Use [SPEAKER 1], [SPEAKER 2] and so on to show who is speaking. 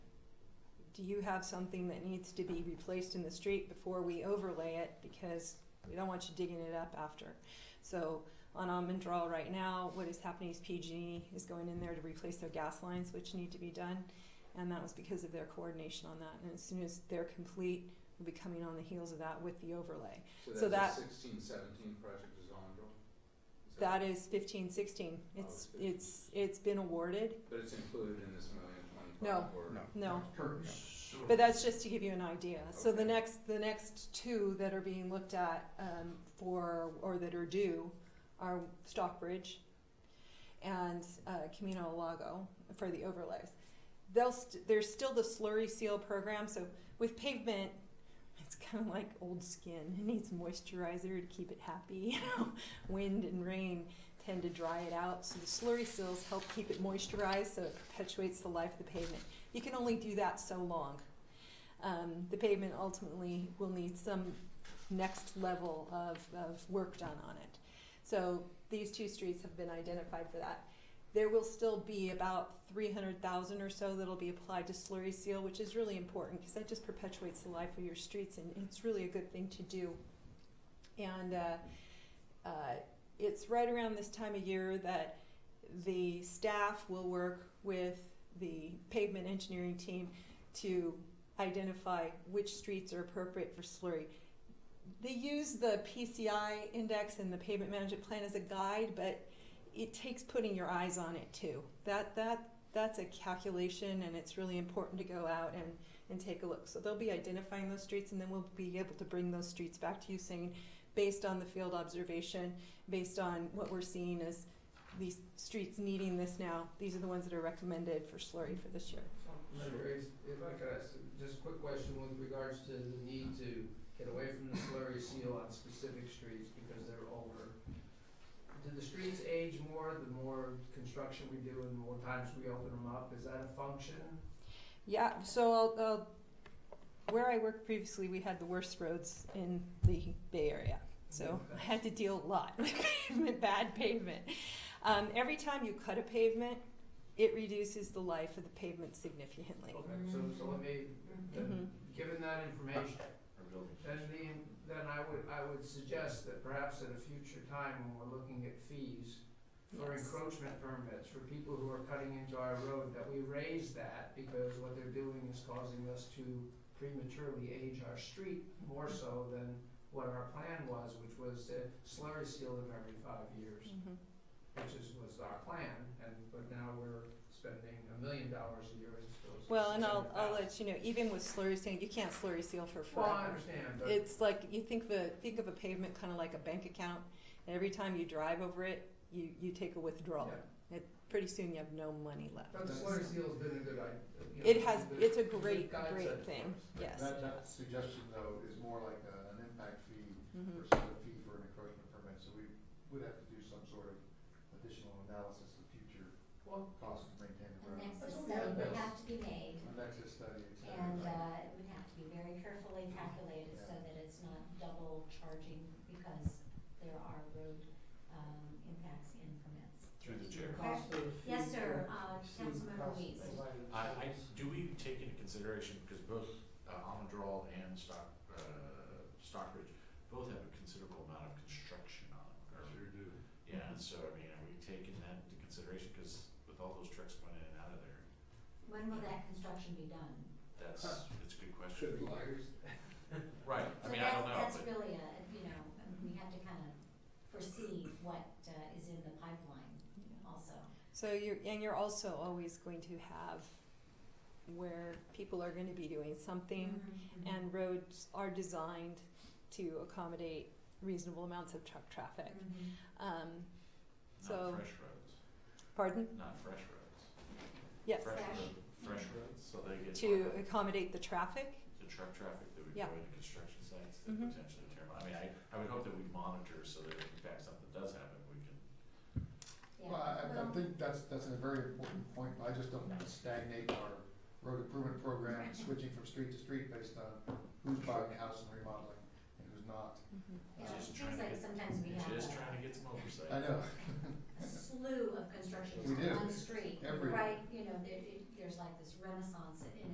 [SPEAKER 1] do you have something that needs to be replaced in the street before we overlay it? Because we don't want you digging it up after. So on Almond Draw right now, what is happening is PG is going in there to replace their gas lines, which need to be done. And that was because of their coordination on that. And as soon as they're complete, we'll be coming on the heels of that with the overlay. So
[SPEAKER 2] So that's
[SPEAKER 1] that-
[SPEAKER 2] a sixteen seventeen project is on draw? Is
[SPEAKER 1] That is fifteen sixteen. It's,
[SPEAKER 2] Oh,
[SPEAKER 1] it's, it's been awarded.
[SPEAKER 2] But it's included in this million
[SPEAKER 1] No.
[SPEAKER 2] twenty-five or?
[SPEAKER 1] No.
[SPEAKER 3] Current, yeah.
[SPEAKER 1] But that's just to give you an idea. So the
[SPEAKER 2] Okay.
[SPEAKER 1] next, the next two that are being looked at um, for, or that are due, are Stockbridge and uh, Camino Lago for the overlays. They'll, st- there's still the slurry seal program, so with pavement, it's kind of like old skin. It needs moisturizer to keep it happy. You know, wind and rain tend to dry it out. So the slurry seals help keep it moisturized, so it perpetuates the life of the pavement. You can only do that so long. Um, the pavement ultimately will need some next level of, of work done on it. So these two streets have been identified for that. There will still be about 300,000 or so that'll be applied to slurry seal, which is really important because that just perpetuates the life of your streets and it's really a good thing to do. And uh, uh, it's right around this time of year that the staff will work with the pavement engineering team to identify which streets are appropriate for slurry. They use the PCI index and the pavement management plan as a guide, but it takes putting your eyes on it too. That that that's a calculation and it's really important to go out and, and take a look. So they'll be identifying those streets and then we'll be able to bring those streets back to you saying based on the field observation, based on what we're seeing as these streets needing this now, these are the ones that are recommended for slurry for this year.
[SPEAKER 4] If if I could ask just a quick question with regards to the need to get away from the slurry seal on specific streets because they're older. Do the streets age more the more construction we do and the more times we open them up? Is that a function?
[SPEAKER 1] Yeah, so I'll, I'll, where I worked previously, we had the worst roads in the Bay Area. So I had to deal a lot with pavement, bad pavement. Um, every time you cut a pavement, it reduces the life of the pavement significantly.
[SPEAKER 4] Okay, so so let me,
[SPEAKER 1] Mhm.
[SPEAKER 4] then, given that information, then the, then I would, I would suggest that perhaps at a future time when we're looking at fees, for
[SPEAKER 1] Yes.
[SPEAKER 4] encroachment permits for people who are cutting into our road, that we raise that because what they're doing is causing us to prematurely age our street more so than what our plan was, which was to slurry seal them every five years,
[SPEAKER 1] Mhm.
[SPEAKER 4] which is, was our plan, and, but now we're spending a million dollars a year as opposed to
[SPEAKER 1] Well, and I'll, I'll
[SPEAKER 4] 600,000.
[SPEAKER 1] let you know, even with slurry seal, you can't slurry seal for
[SPEAKER 4] Well, I
[SPEAKER 1] forever.
[SPEAKER 4] understand, but.
[SPEAKER 1] It's like, you think the, think of a pavement kind of like a bank account, and every time you drive over it, you, you take a withdrawal.
[SPEAKER 4] yeah.
[SPEAKER 1] Pretty soon you have no money left.
[SPEAKER 4] But the slurry seal's been a good idea. you know,
[SPEAKER 1] It has,
[SPEAKER 4] been
[SPEAKER 1] it's a
[SPEAKER 4] good
[SPEAKER 1] great,
[SPEAKER 4] concept for
[SPEAKER 1] great
[SPEAKER 4] us.
[SPEAKER 1] thing, yes.
[SPEAKER 3] That, that suggestion though is more like a- an impact fee
[SPEAKER 1] Mhm.
[SPEAKER 3] versus a fee for an encroachment permit, so we would have to do some sort of additional analysis of future
[SPEAKER 4] Well,
[SPEAKER 3] costs to maintain the
[SPEAKER 5] An
[SPEAKER 3] road.
[SPEAKER 5] exit
[SPEAKER 4] That's
[SPEAKER 5] study
[SPEAKER 4] okay.
[SPEAKER 5] would have to be made,
[SPEAKER 3] An exit study, et cetera.
[SPEAKER 5] and, uh, it would have to be very carefully calculated so that it's not double charging because there are road, um, impacts and permits.
[SPEAKER 6] Through the chair.
[SPEAKER 4] cost of.
[SPEAKER 5] Yes, sir,
[SPEAKER 4] future-
[SPEAKER 5] uh, Councilmember Weiss.
[SPEAKER 6] I, I, do we take into consideration, because both uh, Almondral and Stock, uh, Stockbridge, both have a considerable amount of construction on them. or-
[SPEAKER 3] Sure do.
[SPEAKER 6] Yeah, and so I mean, are we taking that into consideration, because with all those trucks going in and out of there,
[SPEAKER 5] When will that construction be done?
[SPEAKER 6] that's, it's a
[SPEAKER 2] Should
[SPEAKER 6] good question.
[SPEAKER 2] be years.
[SPEAKER 6] Right, I mean, I don't know,
[SPEAKER 5] So that's, that's
[SPEAKER 6] but,
[SPEAKER 5] really a, you know, we have to kind of foresee what, uh, is in the pipeline also.
[SPEAKER 1] So you're, and you're also always going to have where people are going to be doing something,
[SPEAKER 5] Mm-hmm.
[SPEAKER 1] and roads are designed to accommodate reasonable amounts of truck traffic.
[SPEAKER 5] Mhm.
[SPEAKER 6] not
[SPEAKER 1] Um, so,
[SPEAKER 6] fresh roads,
[SPEAKER 1] pardon?
[SPEAKER 6] not fresh roads.
[SPEAKER 1] Yes.
[SPEAKER 6] Fresh
[SPEAKER 5] Fresh.
[SPEAKER 6] road, fresh roads, so they get
[SPEAKER 1] To
[SPEAKER 6] like
[SPEAKER 1] accommodate the traffic.
[SPEAKER 6] the truck traffic that would
[SPEAKER 1] Yeah.
[SPEAKER 6] go into construction sites that
[SPEAKER 1] Mhm.
[SPEAKER 6] potentially tear them. I mean, I, I would hope that we monitor so that if in fact something does happen, we can
[SPEAKER 5] Yeah.
[SPEAKER 3] Well, I, I- I
[SPEAKER 5] Well,
[SPEAKER 3] think that's, that's a very important point, but I just don't wanna stagnate our road improvement program, switching from street to street based on who's buying a house and remodeling and who's not.
[SPEAKER 1] Mm-hmm.
[SPEAKER 3] Uh,
[SPEAKER 5] Yeah, it
[SPEAKER 6] Just
[SPEAKER 5] seems
[SPEAKER 6] trying to
[SPEAKER 5] like
[SPEAKER 6] get-
[SPEAKER 5] sometimes we have
[SPEAKER 6] Just
[SPEAKER 5] a-
[SPEAKER 6] trying to get some oversight.
[SPEAKER 3] I know,
[SPEAKER 5] a slew of constructions
[SPEAKER 3] We do.
[SPEAKER 5] on the street,
[SPEAKER 3] Everywhere.
[SPEAKER 5] right? You know, there, it, there's like this renaissance in